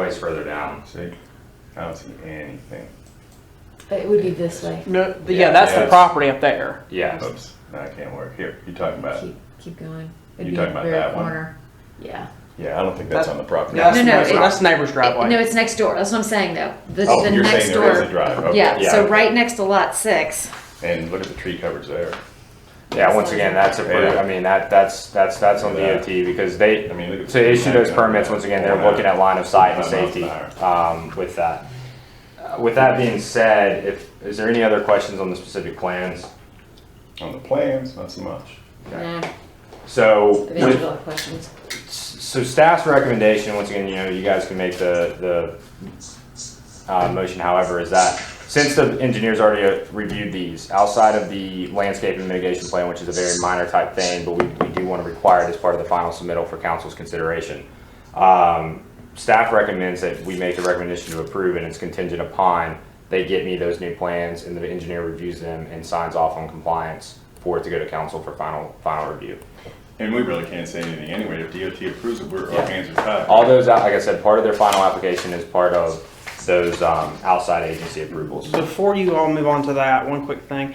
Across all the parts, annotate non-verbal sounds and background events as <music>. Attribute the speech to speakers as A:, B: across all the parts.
A: price further down.
B: See, I don't see anything.
C: It would be this way.
D: No, th-
A: Yeah,
D: yeah, that's the
B: yes.
D: property up there.
A: Yeah,
B: Oops, no, I can't work. Here, you talking about,
C: Keep, keep going. It'd
B: You
C: be
B: talking about
C: very
B: that one?
C: corner. Yeah.
B: yeah, I don't think that's
D: That-
B: on the property.
D: That's,
C: No, no,
D: that's,
C: it-
D: that's neighbor's driveway.
C: No, it's next door. That's what I'm saying though. The,
B: Oh,
C: the
B: you're saying
C: next
B: there is
C: door.
B: a drive, okay.
C: Yeah, so
A: Yeah.
C: right next to lot six.
B: And look at the tree coverage there.
A: yeah, once again, that's approved, I mean, that, that's, that's, that's on DOT because they,
B: I mean, look at-
A: to issue those permits, once again, they're looking at line of sight and safety, um, with that. Uh, With that being said, if, is there any other questions on the specific plans?
B: On the plans, not so much.
C: Nah,
A: So,
C: the
A: with,
C: visual questions.
A: so staff's recommendation, once again, you know, you guys can make the, the, uh, motion however, is that since the engineers already uh, reviewed these, outside of the landscape and mitigation plan, which is a very minor type thing, but we, we do want to require it as part of the final submittal for council's consideration. Um, staff recommends that we make the recommendation to approve and it's contingent upon they get me those new plans and the engineer reviews them and signs off on compliance for it to go to council for final, final review.
B: And we really can't say anything anyway. If DOT approves it, we're,
A: Yeah.
B: our hands are tied.
A: All those, out like I said, part of their final application is part of those um, outside agency approvals.
D: Before you all move on to that, one quick thing.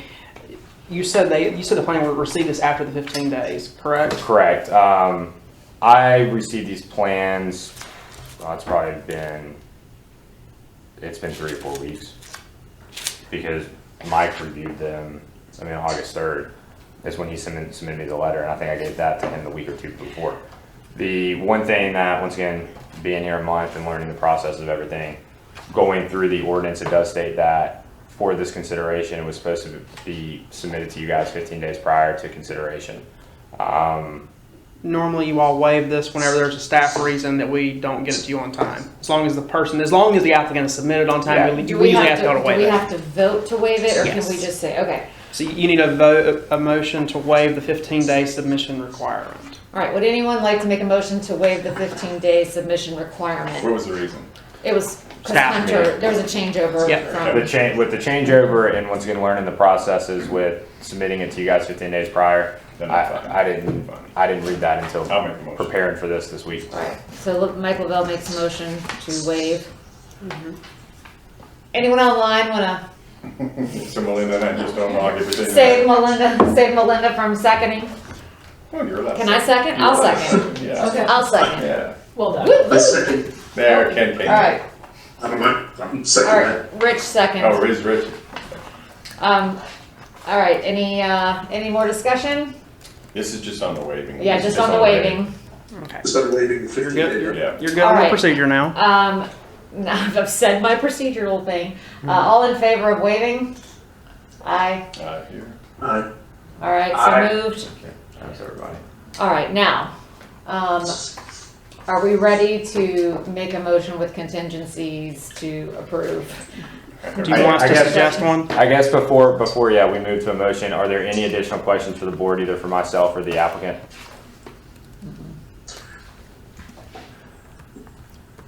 D: You said they, you said the planning would receive this after the 15 days, correct?
A: Correct. Um, I received these plans, oh, it's probably been, it's been three or four weeks. Because Mike reviewed them, I mean, August third is when he submitted, submitted me the letter, and I think I gave that to him the week or two before. The one thing that, once again, being here a month and learning the process of everything, going through the ordinance, it does state that for this consideration, it was supposed to be submitted to you guys fifteen days prior to consideration.
D: Normally, you all waive this whenever there's a staff reason that we don't get it to you on time. As long as the person, as long as the applicant is submitted on
A: Yeah.
D: time, we
C: Do
D: we
C: we
D: usually
C: have
D: ask
C: to,
D: y'all to
C: do
D: waive
C: we
D: it.
C: have to vote to waive it or can
D: Yes.
C: we just say, okay?
D: So you need a vote, a motion to waive the 15-day submission requirement.
C: All right, would anyone like to make a motion to waive the fifteen day submission
B: What
C: requirement?
B: was the reason?
C: It was, cause
D: Staff.
C: Hunter, there was a changeover
D: Yep.
A: The
C: from,
A: change, with the changeover and once again learning the processes with submitting it to you guys fifteen days prior,
B: Then I'm fine.
A: I, I didn't, I didn't read that until
B: I'll make the motion.
A: preparing for this this week.
C: all right, so look, Mike Lavelle makes a motion to waive.
B: Mm-hmm.
C: Anyone online wanna
B: <laughs> So Melinda and I just don't log everything.
C: save Melinda, save Melinda from seconding?
B: Oh, you're allowed.
C: Can I second? I'll second.
B: Yeah,
C: I'll second.
B: yeah.
C: Well done.
E: I second.
B: There, Ken came.
C: All right,
E: I don't know. I'm
C: all
E: second. that.
C: right, Rich
B: Oh,
C: second.
B: Riz, Rich.
C: Um, all right, any, uh, any more discussion?
B: This is just on the waving.
C: Yeah, just on the waiving.
D: Okay.
E: Is that waiving the
D: You're
E: fifteen
D: good,
E: day?
D: you're,
B: Yeah.
D: you're good
C: All
D: on the
C: right.
D: procedure now.
C: Um, <laughs> now I've said my procedural thing. Uh, all in favor of waiving? Aye.
B: Uh, here.
E: Aye.
C: All right,
E: Aye.
C: so moved.
A: Thanks, everybody.
C: All right, now, um, are we ready to make a motion with contingencies to approve?
D: Do you
A: I-
D: want us
A: I
D: to
A: guess-
D: suggest one?
A: I guess before, before, yeah, we move to a motion, are there any additional questions for the board, either for myself or the applicant?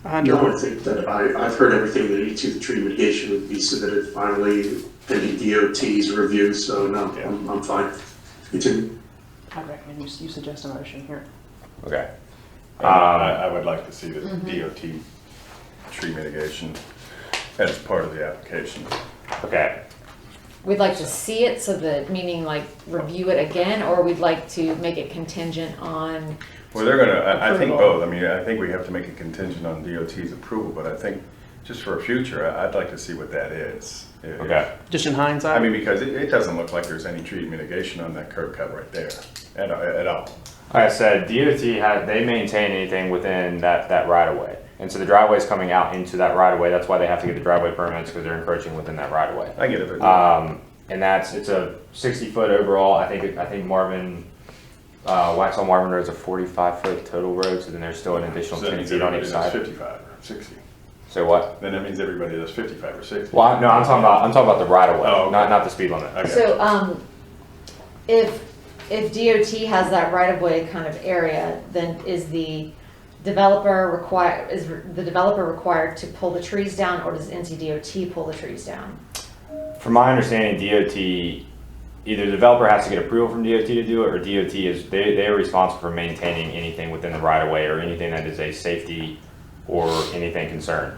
D: Hunter,
E: No, I think that I, I've heard everything that each of the tree mitigation would be submitted finally, pending DOT's review, so no, I'm, I'm fine. E Continue.
D: I recommend you, you suggest a motion here.
A: Okay.
B: And I, I would like to see the DOT tree mitigation as part of the application.
A: Okay,
C: We'd like to see it, so that, meaning like review it again, or we'd like to make it contingent on,
B: Well, they're gonna, I, I think
D: Approval.
B: both, I mean, I think we have to make a contingent on DOT's approval, but I think, just for future, I- I'd like to see what that is. If-
A: okay,
D: Just in hindsight?
B: I mean, because it, it doesn't look like there's any tree mitigation on that curb cut right there, at, at all.
A: like I said, DOT had, they maintain anything within that, that right of way. And so the driveway's coming out into that right of way, that's why they have to get the driveway permits, because they're encroaching within that right of way.
B: I get it, but
A: Um, and that's, it's a sixty foot overall, I think, I think Marvin, uh, Waxaw Marvin Road's a forty-five foot total road, so then there's still an additional
B: so that
A: ten
B: means
A: feet on
B: everybody
A: each
B: does
A: side.
B: fifty-five or sixty.
A: So what?
B: Then that means everybody does fifty-five or sixty.
A: Well, I- no, I'm talking about, I'm talking about the right of
B: Oh, okay.
A: way, not, not the speed limit.
B: Okay.
C: so, um, if, if DOT has that right-of-way kind of area, then is the developer require, is the developer required to pull the trees down, or does NCDOT pull the trees down?
A: From my understanding, DOT, either the developer has to get approval from DOT to do it, or DOT is, they, they are responsible for maintaining anything within the right of way, or anything that is a safety or anything concerned.